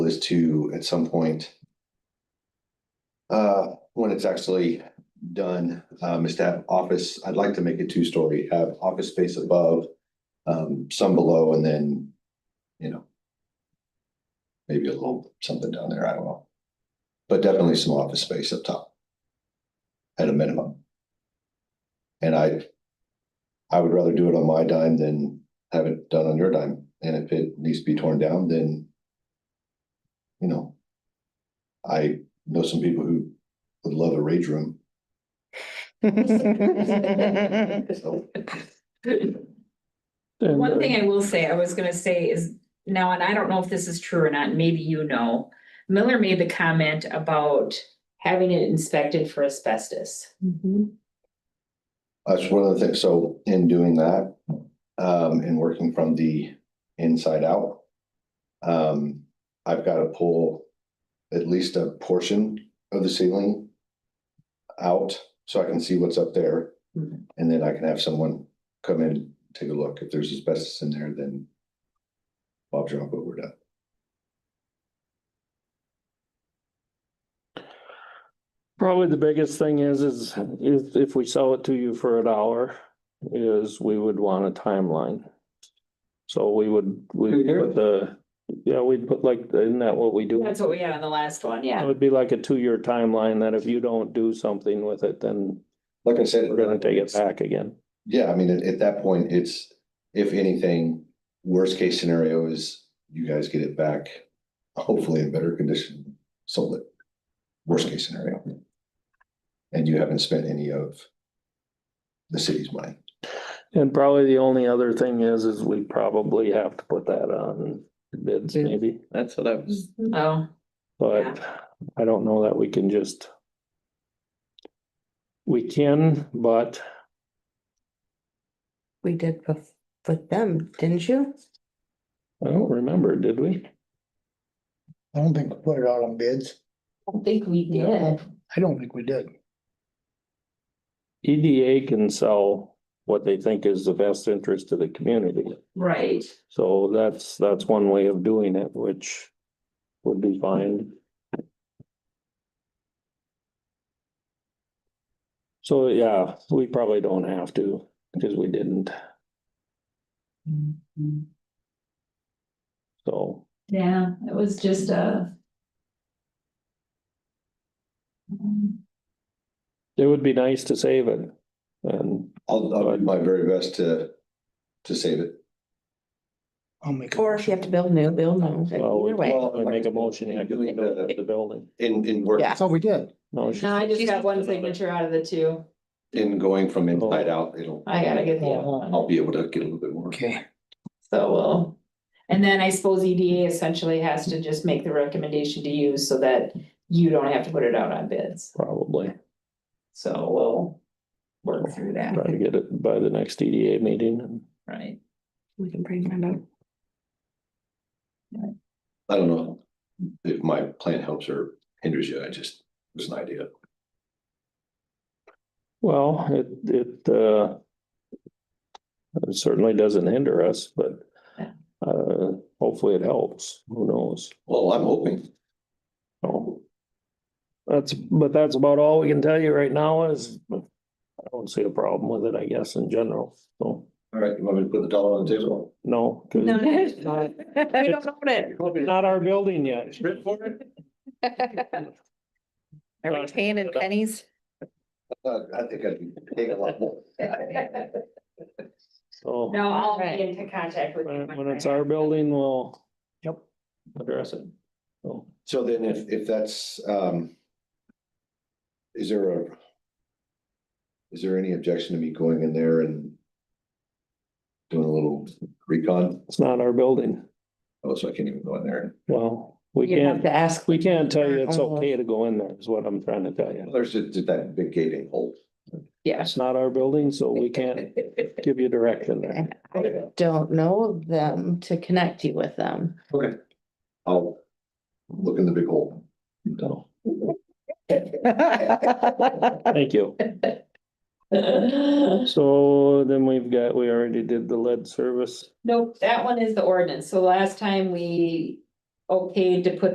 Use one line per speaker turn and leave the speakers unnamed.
is to, at some point. Uh, when it's actually done, um, is to have office, I'd like to make it two-story, have office space above. Um, some below and then, you know. Maybe a little something down there, I don't know. But definitely some office space up top. At a minimum. And I. I would rather do it on my dime than have it done on your dime, and if it needs to be torn down, then. You know. I know some people who would love a rage room, so.
One thing I will say, I was gonna say is now, and I don't know if this is true or not, maybe you know. Miller made the comment about having it inspected for asbestos.
That's one of the things, so in doing that, um, and working from the inside out. Um, I've got to pull at least a portion of the ceiling. Out, so I can see what's up there,
Mhm.
and then I can have someone come in, take a look, if there's asbestos in there, then. Bob drop over that,
Probably the biggest thing is, is if, if we sell it to you for a dollar, is we would want a timeline. So we would, we
Two
would
years?
put the, yeah, we'd put like, isn't that what we do?
That's what we had on the last one,
It
yeah.
would be like a two-year timeline that if you don't do something with it, then
like I said.
we're gonna take it back again.
Yeah, I mean, at, at that point, it's, if anything, worst case scenario is you guys get it back, hopefully in better condition, sold it. Worst case scenario. And you haven't spent any of the city's money.
And probably the only other thing is, is we probably have to put that on bids
Yeah.
maybe,
That's what I was,
Oh,
but I don't know that we can just. We can, but
We did bef- with them, didn't you?
I don't remember, did we?
I don't think we put it out on bids.
I don't think we did.
I don't think we did.
EDA E can sell what they think is the best interest of the community.
Right.
So that's, that's one way of doing it, which would be fine. So, yeah, we probably don't have to, because we didn't, so.
Yeah, it was just uh, a.
It would be nice to save it, and
I'll, I'll do my very best to, to save it.
I'll make. a
Or if you have to build new, build new,
Well,
either way.
we make a motion, yeah, to build up the building.
Uh, In, in work,
Yeah.
That's all we did.
No, she-
No, I just
She's
got one
another.
signature out of the two.
in going from
Oh.
inside out, it'll,
I gotta get the other one.
I'll be able to get a little bit more.
Okay.
So, well, and then I suppose EDA essentially has to just make the recommendation to you so that you don't have to put it out on bids.
Probably,
So we'll work through that,
try to get it by the next EDA meeting and
right?
We can bring that up.
I don't know if my plan helps or hinders you, I just, it was an idea.
Well, it, it, uh. it Certainly doesn't hinder us, but,
Yeah.
uh, hopefully it helps, who knows?
Well, I'm hoping.
So That's, but that's about all we can tell you right now is, I don't see a problem with it, I guess, in general, so,
All right, you want me to put the dollar on the table?
no. 'cause
No, no.
it's Not
We don't own it.
not our building yet.
for it?
Are
Uh,
we paying in pennies?
I think I'd be taking a lot more.
So
No, I'll be in contact with you.
when, when it's our building, we'll.
Yep.
Address it. So,
So then if, if that's, um. Is there a? Is there any objection to me going in there and? Doing a little recon?
it's not our building,
Oh, so I can't even go in there.
well, we
You have
can't,
to ask.
we can't tell you it's
Uh-huh.
okay to go in there, is what I'm trying to tell you.
Well, There's just that big gating hole.
Yeah.
It's not our building, so we can't give you direction there.
I don't know them to connect you with them.
Okay. I'll look in the big hole.
So, thank you. So then we've got, we already did the lead service.
Nope, that one is the ordinance. So last time we okayed to put